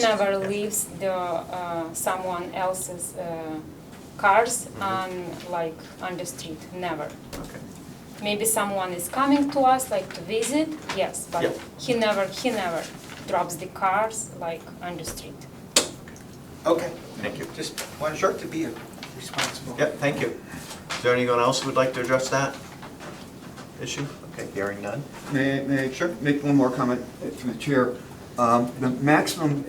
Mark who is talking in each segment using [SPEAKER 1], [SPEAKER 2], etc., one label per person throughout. [SPEAKER 1] never leaves the uh, someone else's uh, cars
[SPEAKER 2] Mm-hmm.
[SPEAKER 1] on like on the street. Never.
[SPEAKER 2] Okay,
[SPEAKER 1] Maybe someone is coming to us like to visit. Yes, but
[SPEAKER 2] Yeah.
[SPEAKER 1] he never he never drops the cars like on the street.
[SPEAKER 3] Okay.
[SPEAKER 2] Thank you.
[SPEAKER 3] Just want Dirk to be responsible.
[SPEAKER 2] yep, thank you. Is there anyone else who would like to address that issue? Okay, hearing none.
[SPEAKER 4] May, may I make one more comment uh, through the chair? Um, The maximum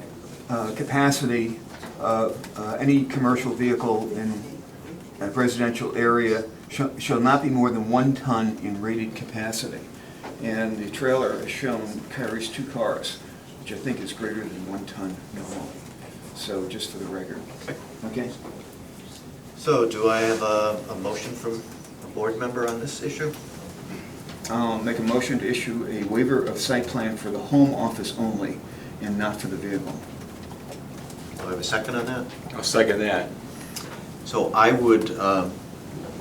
[SPEAKER 4] uh, capacity of uh, any commercial vehicle in a residential area shall shall not be more than one ton in rated capacity. And the trailer, as shown, carries two cars, which I think is greater than one ton normally. So just for the record,
[SPEAKER 2] Okay.
[SPEAKER 4] okay?
[SPEAKER 2] So do I have a, a motion from a board member on this issue?
[SPEAKER 4] I'll Um, make a motion to issue a waiver of site plan for the home office only and not for the vehicle.
[SPEAKER 2] Do I have a second on that?
[SPEAKER 5] I'll second that.
[SPEAKER 2] So I would um,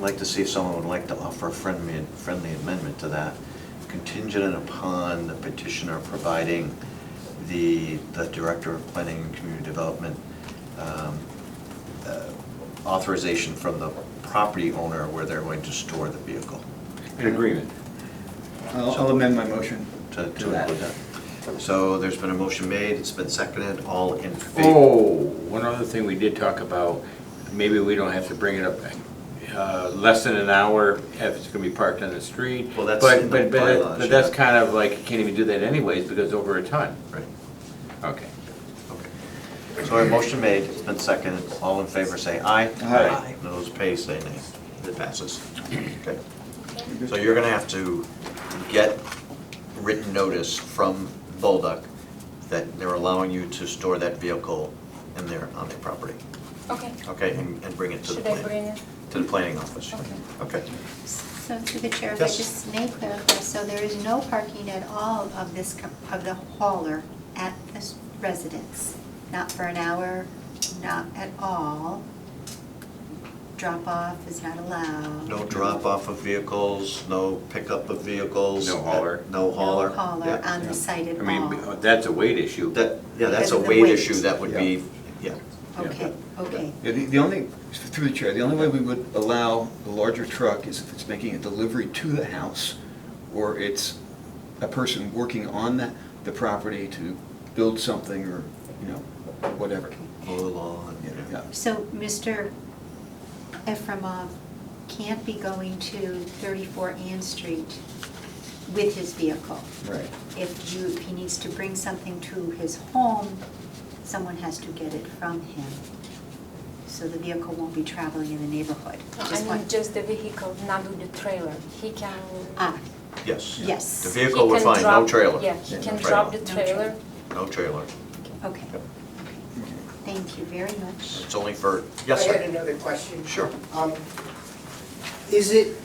[SPEAKER 2] like to see if someone would like to offer a friendly, friendly amendment to that, contingent upon the petitioner providing the, the Director of Planning and Community Development um, uh, authorization from the property owner where they're going to store the vehicle.
[SPEAKER 5] In agreement.
[SPEAKER 4] I'll I'll amend my motion.
[SPEAKER 2] To to include that. So there's been a motion made, it's been seconded, all in favor?
[SPEAKER 5] Oh, one other thing we did talk about, maybe we don't have to bring it up, uh, less than an hour if it's gonna be parked on the street.
[SPEAKER 2] Well, that's
[SPEAKER 5] But-
[SPEAKER 2] in the
[SPEAKER 5] but- but that-
[SPEAKER 2] bylaws,
[SPEAKER 5] But that's
[SPEAKER 2] yeah.
[SPEAKER 5] kind of like, you can't even do that anyways because over a ton.
[SPEAKER 2] Right,
[SPEAKER 5] Okay.
[SPEAKER 2] okay. So our motion made, it's been seconded, all in favor say aye.
[SPEAKER 4] Aye.
[SPEAKER 2] And Those opposed say nay. It passes. Okay. So you're gonna have to get written notice from Bolduc that they're allowing you to store that vehicle in their, on their property.
[SPEAKER 1] Okay.
[SPEAKER 2] Okay, and, and bring it to the
[SPEAKER 1] Should I
[SPEAKER 2] planning,
[SPEAKER 1] bring it?
[SPEAKER 2] to the planning office.
[SPEAKER 1] Okay.
[SPEAKER 2] Okay.
[SPEAKER 6] So through the chair, if I
[SPEAKER 2] Yes.
[SPEAKER 6] just may clarify, so there is no parking at all of this, com- of the hauler at this residence? Not for an hour, not at all? Drop-off is not allowed?
[SPEAKER 2] No drop-off of vehicles, no pickup of vehicles.
[SPEAKER 5] No hauler.
[SPEAKER 2] No hauler.
[SPEAKER 6] No hauler
[SPEAKER 2] Yeah.
[SPEAKER 6] on the site
[SPEAKER 5] I
[SPEAKER 6] at
[SPEAKER 5] mean, uh,
[SPEAKER 6] all?
[SPEAKER 5] that's a weight issue.
[SPEAKER 2] That, yeah, that's
[SPEAKER 6] Because
[SPEAKER 2] a
[SPEAKER 6] of the
[SPEAKER 2] weight
[SPEAKER 6] weight.
[SPEAKER 2] issue, that would be, yeah.
[SPEAKER 6] Okay, okay.
[SPEAKER 4] Yeah, the, the only, through the chair, the only way we would allow a larger truck is if it's making a delivery to the house, or it's a person working on the, the property to build something, or, you know, whatever.
[SPEAKER 2] Mow the lawn,
[SPEAKER 4] Yeah,
[SPEAKER 2] yeah.
[SPEAKER 4] yeah.
[SPEAKER 6] So Mr. Efremov can't be going to 34 Ann Street with his vehicle?
[SPEAKER 4] Right.
[SPEAKER 6] if you, if he needs to bring something to his home, someone has to get it from him. So the vehicle won't be traveling in the neighborhood.
[SPEAKER 1] I
[SPEAKER 6] Just
[SPEAKER 1] mean,
[SPEAKER 6] one,
[SPEAKER 1] just the vehicle, not with the trailer. He can.
[SPEAKER 6] ah,
[SPEAKER 2] Yes.
[SPEAKER 6] Yes.
[SPEAKER 2] The
[SPEAKER 1] he
[SPEAKER 2] vehicle, we're
[SPEAKER 1] can
[SPEAKER 2] fine, no
[SPEAKER 1] drop-
[SPEAKER 2] trailer.
[SPEAKER 1] Yeah, he
[SPEAKER 2] No
[SPEAKER 1] can
[SPEAKER 2] trailer.
[SPEAKER 1] drop the
[SPEAKER 6] No
[SPEAKER 1] trailer.
[SPEAKER 6] trailer.
[SPEAKER 2] No trailer.
[SPEAKER 6] okay.
[SPEAKER 2] Yep.
[SPEAKER 6] Thank you very much.
[SPEAKER 2] It's only for, yes,
[SPEAKER 7] I had
[SPEAKER 2] sir.
[SPEAKER 7] another question.
[SPEAKER 2] Sure.
[SPEAKER 7] Um, Is it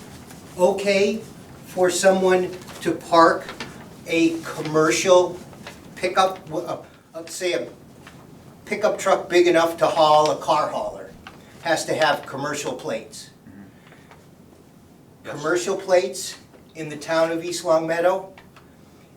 [SPEAKER 7] okay for someone to park a commercial pickup, w- uh, let's say a pickup truck big enough to haul a car hauler, has to have commercial plates?
[SPEAKER 2] Yes.
[SPEAKER 7] Commercial plates in the town of East Long Meadow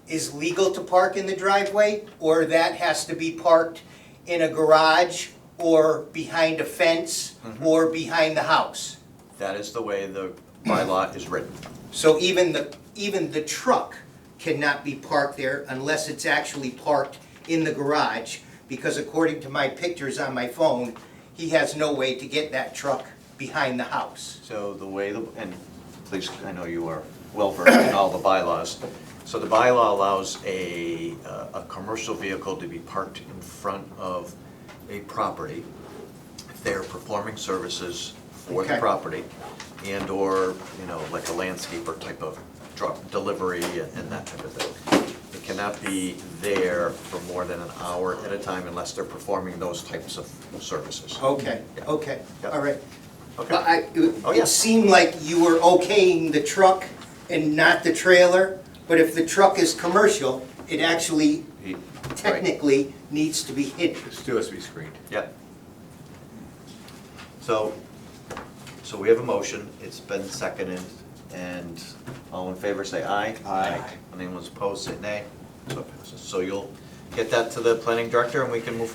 [SPEAKER 7] is legal to park in the driveway, or that has to be parked in a garage or behind a fence or behind the house.
[SPEAKER 2] That is the way the bylaw is written.
[SPEAKER 7] So even the, even the truck cannot be parked there unless it's actually parked in the garage, because according to my pictures on my phone, he has no way to get that truck behind the house.
[SPEAKER 2] So the way, the and please, I know you are well versed in all the bylaws. So the bylaw allows a, uh, a commercial vehicle to be parked in front of a property if they're performing services for the
[SPEAKER 7] Okay.
[SPEAKER 2] property and/or, you know, like a landscaper type of drop, delivery and that type of thing. It cannot be there for more than an hour at a time unless they're performing those types of services.
[SPEAKER 7] Okay, okay,
[SPEAKER 2] Yeah.
[SPEAKER 7] all right.
[SPEAKER 2] Okay.
[SPEAKER 7] But I, it-
[SPEAKER 2] Oh, yeah.
[SPEAKER 7] it seemed like you were okaying the truck and not the trailer, but if the truck is commercial, it actually
[SPEAKER 2] He- right.
[SPEAKER 7] technically needs to be hidden.
[SPEAKER 5] It Still has to be screened.
[SPEAKER 2] Yep. So, so we have a motion, it's been seconded, and all in favor say aye. Aye. And anyone's opposed, say nay. So passes. So you'll get that to the planning director and we can move